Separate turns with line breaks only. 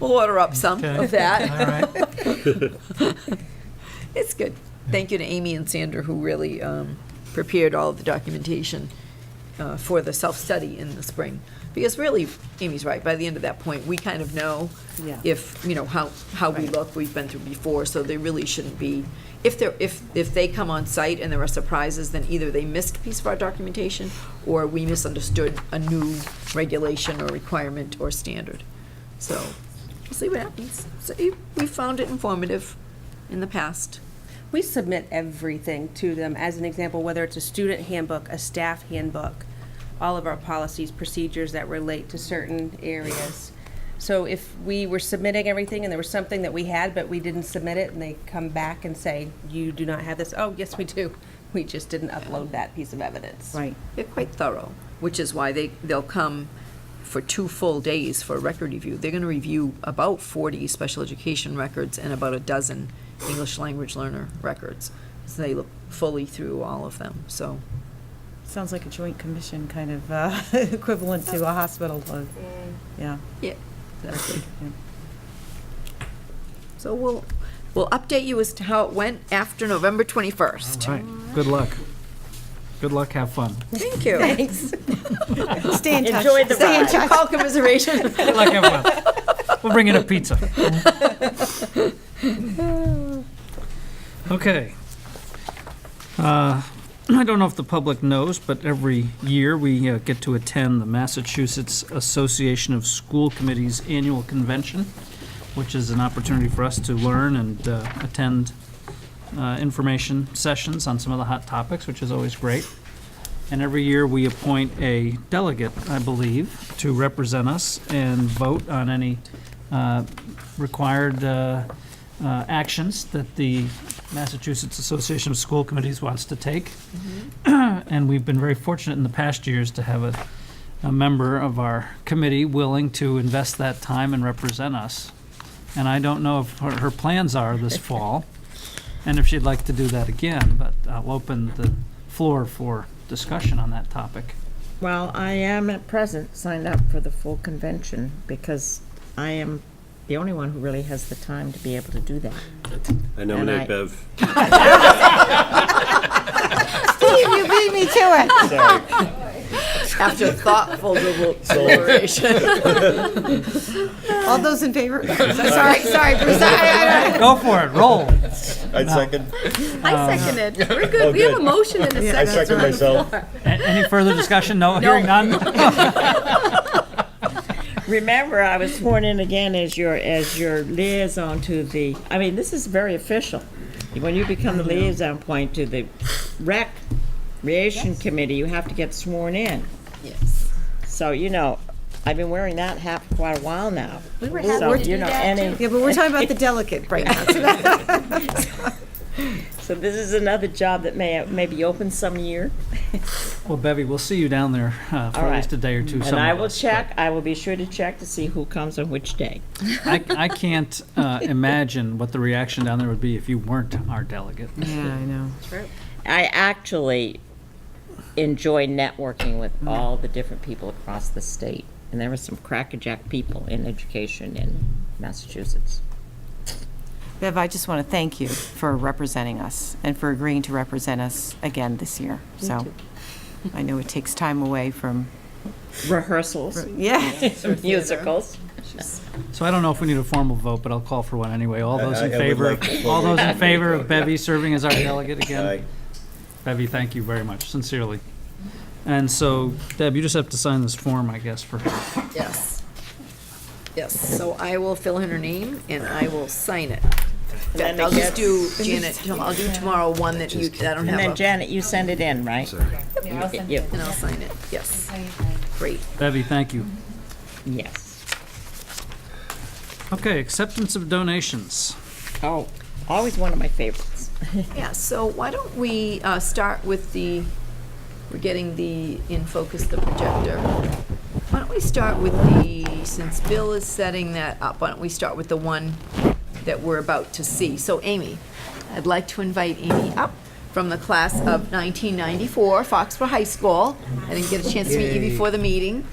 We'll order up some
Okay.
of that.
All right.
It's good. Thank you to Amy and Sandra, who really um, prepared all of the documentation uh, for the self-study in the spring. Because really, Amy's right, by the end of that point, we kind of know
Yeah.
if, you know, how, how we look, we've been through before, so they really shouldn't be, if they're, if, if they come on site and there are surprises, then either they missed a piece of our documentation, or we misunderstood a new regulation or requirement or standard. So, we'll see what happens. So, you- we found it informative in the past.
We submit everything to them, as an example, whether it's a student handbook, a staff handbook, all of our policies, procedures that relate to certain areas. So if we were submitting everything and there was something that we had, but we didn't submit it, and they come back and say, you do not have this, oh, yes, we do. We just didn't upload that piece of evidence.
Right.
They're quite thorough, which is why they, they'll come for two full days for a record review. They're going to review about 40 special education records and about a dozen English language learner records. So they look fully through all of them, so.
Sounds like a joint commission kind of uh, equivalent to a hospital load. Yeah.
Yeah. Exactly.
Yeah.
So we'll, we'll update you as to how it went after November 21st.
All right. Good luck. Good luck. Have fun.
Thank you.
Thanks.
Stay in touch.
Enjoyed the
Stay in
ride.
touch.
Call commiseration.
Good luck. Have fun. We'll bring in a pizza. Okay. Uh, I don't know if the public knows, but every year we uh, get to attend the Massachusetts Association of School Committees Annual Convention, which is an opportunity for us to learn and uh, attend uh, information sessions on some of the hot topics, which is always great. And every year, we appoint a delegate, I believe, to represent us and vote on any uh, required uh, uh, actions that the Massachusetts Association of School Committees wants to take. And we've been very fortunate in the past years to have a, a member of our committee willing to invest that time and represent us. And I don't know if her her plans are this fall, and if she'd like to do that again, but I'll open the floor for discussion on that topic.
Well, I am at present signed up for the full convention because I am the only one who really has the time to be able to do that.
I
And I-
nominate Bev.
You beat me to it.
After thoughtful deliberation.
All those in favor? Sorry, sorry, Bruce.
Go for it, roll.
I second, Oh,
I second it. We're good. We have a
good.
motion and a
I
second.
second myself.
A- Any further discussion? No, hearing none?
Remember, I was sworn in again as your, as your liaison to the, I mean, this is very official. When you become the liaison point to the rec, creation committee, you have to get sworn in.
Yes.
So, you know, I've been wearing that hat for quite a while now. We were
happy to do that,
Yeah, but we're talking about the delegate right now.
So this is another job that may, may be open some year.
Well, Bevy, we'll see you down there uh, for
All
at
right.
least a day or two.
And
some
I
of
will
us,
check, I will be sure to check to see who comes on which day.
but I I can't uh, imagine what the reaction down there would be if you weren't our delegate.
Yeah, I know.
I actually enjoy networking with all the different people across the state. And there were some crackerjack people in education in Massachusetts.
Bev, I just want to thank you for representing us and for agreeing to represent us again this year. So I know it takes time away from,
Rehearsals,
yeah.
musicals.
So I don't know if we need a formal vote, but I'll call for one anyway. All those
I-
in
I would
favor,
like to
of- all those in
formally-
favor of Bevy serving as our delegate again?
Aye.
Bevy, thank you very much, sincerely. And so, Deb, you just have to sign this form, I guess, for her.
Yes. Yes, so I will fill in her name and I will sign it. In fact, I'll just do, Janet, tom- I'll do tomorrow one that you, I don't
And then
have a,
Janet, you send it in, right? You-
and I'll sign it, yes. Great.
Bevy, thank you.
Yes.
Okay, acceptance of donations.
Oh, always one of my favorites.
Yeah, so why don't we uh, start with the, we're getting the, in focus, the projector. Why don't we start with the, since Bill is setting that up, why don't we start with the one that we're about to see? So Amy, I'd like to invite Amy up from the class of 1994, Foxborough High School. I didn't get a chance to meet you before the meeting.